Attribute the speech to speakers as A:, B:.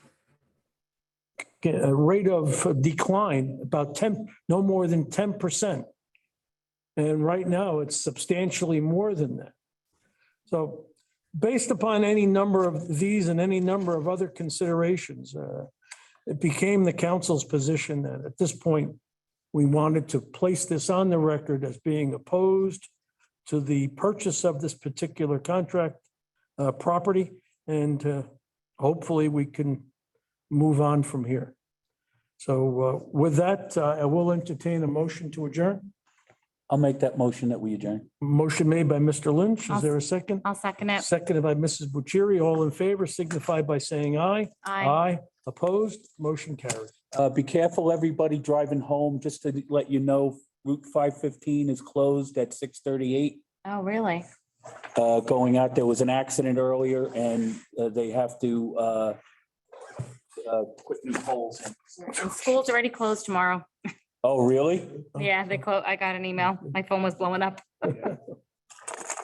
A: a rate of decline about 10, no more than 10%. And right now, it's substantially more than that. So based upon any number of these and any number of other considerations, uh, it became the council's position that at this point, we wanted to place this on the record as being opposed to the purchase of this particular contract uh, property. And uh, hopefully, we can move on from here. So uh, with that, uh, I will entertain a motion to adjourn.
B: I'll make that motion that we adjourn.
A: Motion made by Mr. Lynch. Is
C: I'll-
A: there a second?
C: I'll second it.
A: Seconded by Mrs. Bucieri. All in favor signify by saying aye.
C: Aye.
A: Opposed, motion carries.
B: Uh, be careful, everybody driving home, just to let you know, Route five fifteen is closed at six thirty-eight.
C: Oh, really?
B: Uh, going out, there was an accident earlier and uh, they have to, uh, uh, put new poles in.
C: And school's already closed tomorrow.
B: Oh, really?
C: Yeah, they close, I got an email. My phone was blowing up.